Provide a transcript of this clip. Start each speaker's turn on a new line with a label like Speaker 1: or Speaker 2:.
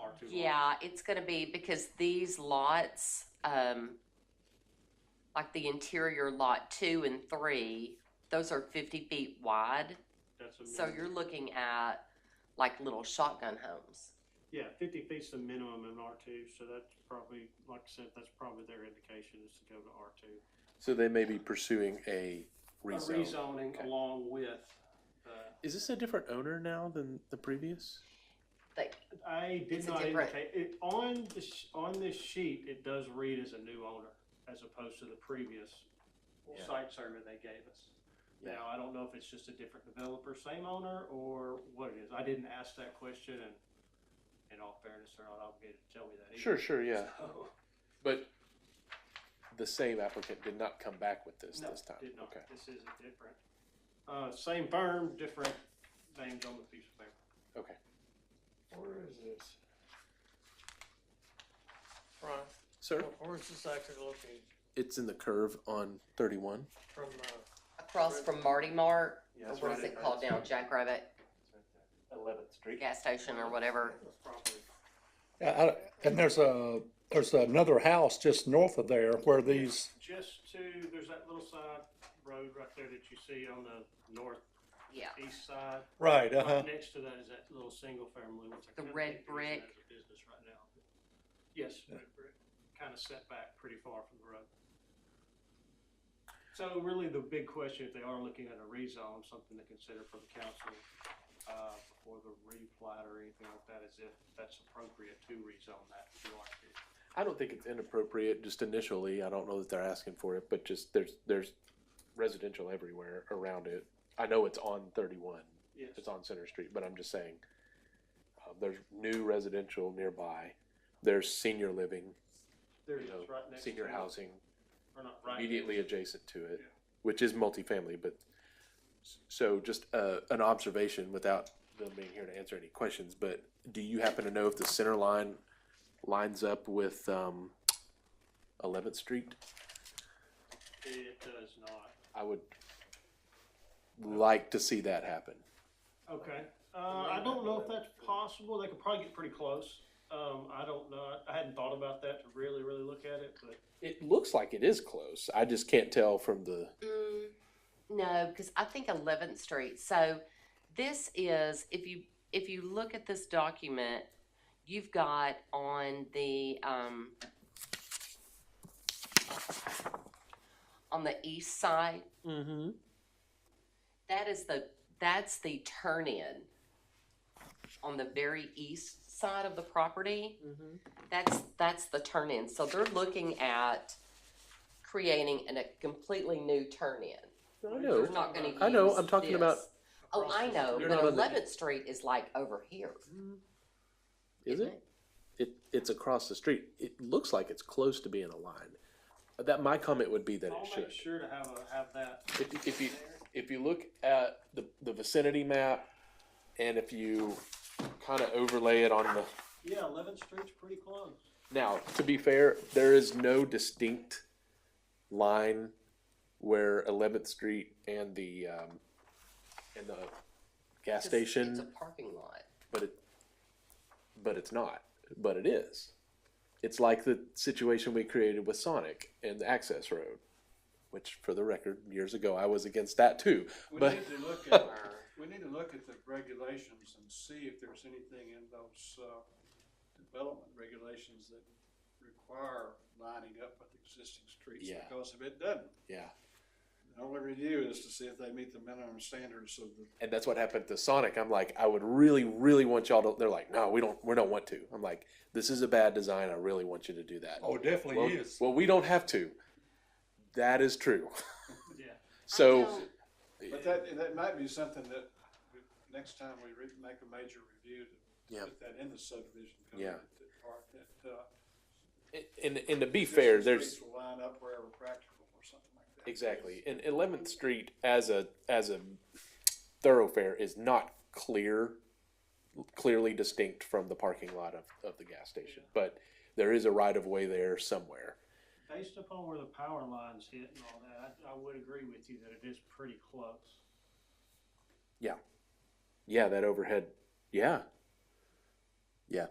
Speaker 1: acres long.
Speaker 2: Yeah, it's gonna be because these lots, um, like the interior lot two and three, those are fifty feet wide.
Speaker 1: That's a
Speaker 3: Mm-hmm.
Speaker 2: So
Speaker 1: minimum.
Speaker 2: you're looking at like little shotgun homes.
Speaker 1: Yeah, fifty feet's the minimum in R two, so that's probably, like I said, that's probably their indication is to go to R two.
Speaker 4: So they may be pursuing a rezone.
Speaker 5: Rezoning
Speaker 4: Okay.
Speaker 5: along with, uh,
Speaker 4: Is this a different owner now than the previous?
Speaker 1: I
Speaker 2: It's
Speaker 1: did
Speaker 2: a
Speaker 1: not
Speaker 2: different-
Speaker 1: indicate, it, on the, sh- on this sheet, it does read as a new owner, as opposed to the previous
Speaker 4: Yeah.
Speaker 1: site survey they gave us.
Speaker 4: Yeah.
Speaker 1: Now, I don't know if it's just a different developer, same owner, or what it is, I didn't ask that question, and in all fairness, they're not obligated to tell me that either.
Speaker 4: Sure, sure, yeah.
Speaker 1: So,
Speaker 4: But the same applicant did not come back with this
Speaker 1: No,
Speaker 4: this time.
Speaker 1: did not,
Speaker 4: Okay.
Speaker 1: this is a different, uh, same firm, different names on the piece of paper.
Speaker 4: Okay.
Speaker 6: Where is this? Brian,
Speaker 4: Sir,
Speaker 6: where- where is this actually located
Speaker 4: it's in the curve on 31.
Speaker 6: from, uh,
Speaker 2: Across from Marty Mart,
Speaker 3: Yeah,
Speaker 2: or
Speaker 3: that's
Speaker 2: what is
Speaker 3: right.
Speaker 2: it called now, Jackrabbit
Speaker 3: Eleventh Street.
Speaker 2: Gas Station or whatever?
Speaker 1: That's property.
Speaker 7: Yeah, I, and there's a, there's another house just north of there where these,
Speaker 1: Just to, there's that little side road right there that you see on the northeast
Speaker 2: Yeah,
Speaker 1: side.
Speaker 7: right, uh-huh.
Speaker 1: Right next to that is that little single family. which I
Speaker 2: The
Speaker 1: kinda
Speaker 2: red
Speaker 1: think they're using
Speaker 2: brick.
Speaker 1: that as a Business right now. Yes,
Speaker 7: Yeah.
Speaker 1: red brick, kind of set back pretty far from the road. So really the big question, if they are looking at a rezone, something to consider for the council, uh, before the replat or anything like that, is if that's appropriate to rezone that to R two.
Speaker 4: I don't think it's inappropriate just initially. I don't know that they're asking for it, but just there's there's residential everywhere around it. I know it's on 31.
Speaker 1: Yes.
Speaker 4: It's on Center Street, but I'm just saying uh, there's new residential nearby. There's senior living,
Speaker 1: There
Speaker 4: you
Speaker 1: it
Speaker 4: know,
Speaker 1: is, right next to it.
Speaker 4: senior housing
Speaker 1: Or not right next
Speaker 4: immediately adjacent to it,
Speaker 1: Yeah.
Speaker 4: which is multifamily. But s- so just uh, an observation without them being here to answer any questions. But do you happen to know if the center line lines up with um, 11th Street?
Speaker 1: It does not.
Speaker 4: I would like to see that happen.
Speaker 1: Okay, uh, I don't know if that's possible, they could probably get pretty close, um, I don't know, I hadn't thought about that to really, really look at it, but.
Speaker 4: It looks like it is close. I just can't tell from the.
Speaker 2: Mm, no, because I think Eleventh Street. So this is if you if you look at this document, you've got on the um, on the east side.
Speaker 4: Mm-hmm.
Speaker 2: That is the that's the turn in on the very east side of the property. That's that's the turn in. So they're looking at creating an, a completely new turn in.
Speaker 4: I
Speaker 2: They're
Speaker 4: know.
Speaker 2: not gonna
Speaker 4: I know,
Speaker 2: use
Speaker 4: I'm talking about-
Speaker 2: this. Oh, I know,
Speaker 4: You're
Speaker 2: but
Speaker 4: not on the-
Speaker 2: Eleventh Street is like over here.
Speaker 4: Is it? It it's across the street. It looks like it's close to being a line. That my comment would be that
Speaker 1: I'll
Speaker 4: it should.
Speaker 1: make sure to have a, have that
Speaker 4: If, if you if you look at the the vicinity map, and if you kind of overlay it on the
Speaker 1: Yeah, Eleventh Street's pretty close.
Speaker 4: Now, to be fair, there is no distinct line where Eleventh Street and the um, and the
Speaker 2: It's-
Speaker 4: gas station,
Speaker 2: It's a parking lot.
Speaker 4: but it but it's not, but it is. It's like the situation we created with Sonic and the access road, which, for the record, years ago I was against that too.
Speaker 5: we
Speaker 4: But-
Speaker 5: need to look at, we need to look at the regulations and see if there's anything in those, uh, development regulations that require lining up with existing streets.
Speaker 4: Yeah.
Speaker 5: Because if it doesn't,
Speaker 4: Yeah,
Speaker 5: the only review is to see if they meet the minimum standards of the
Speaker 4: and that's what happened to Sonic. I'm like, I would really, really want y'all to. They're like, no, we don't, we don't want to. I'm like, this is a bad design. I really want you to do that.
Speaker 7: Oh, it
Speaker 4: well,
Speaker 7: definitely is.
Speaker 4: well, we don't have to. That is true.
Speaker 1: Yeah.
Speaker 2: I
Speaker 4: So,
Speaker 2: don't-
Speaker 5: But that, that might be something that, we- next time we re- make a major review to
Speaker 4: Yeah.
Speaker 5: put that in the subdivision. code,
Speaker 4: Yeah.
Speaker 5: that part that, uh,
Speaker 4: and, and to be fair,
Speaker 5: existing
Speaker 4: there's
Speaker 5: streets will Line up wherever practical or something like that.
Speaker 4: exactly and Eleventh Street as a as a thoroughfare is not clear, clearly distinct from the parking lot of, of the gas station. But there is a right of way there somewhere.
Speaker 1: Based upon where the power lines hit and all that, I, I would agree with you that it is pretty close.
Speaker 4: Yeah, that overhead. Yeah,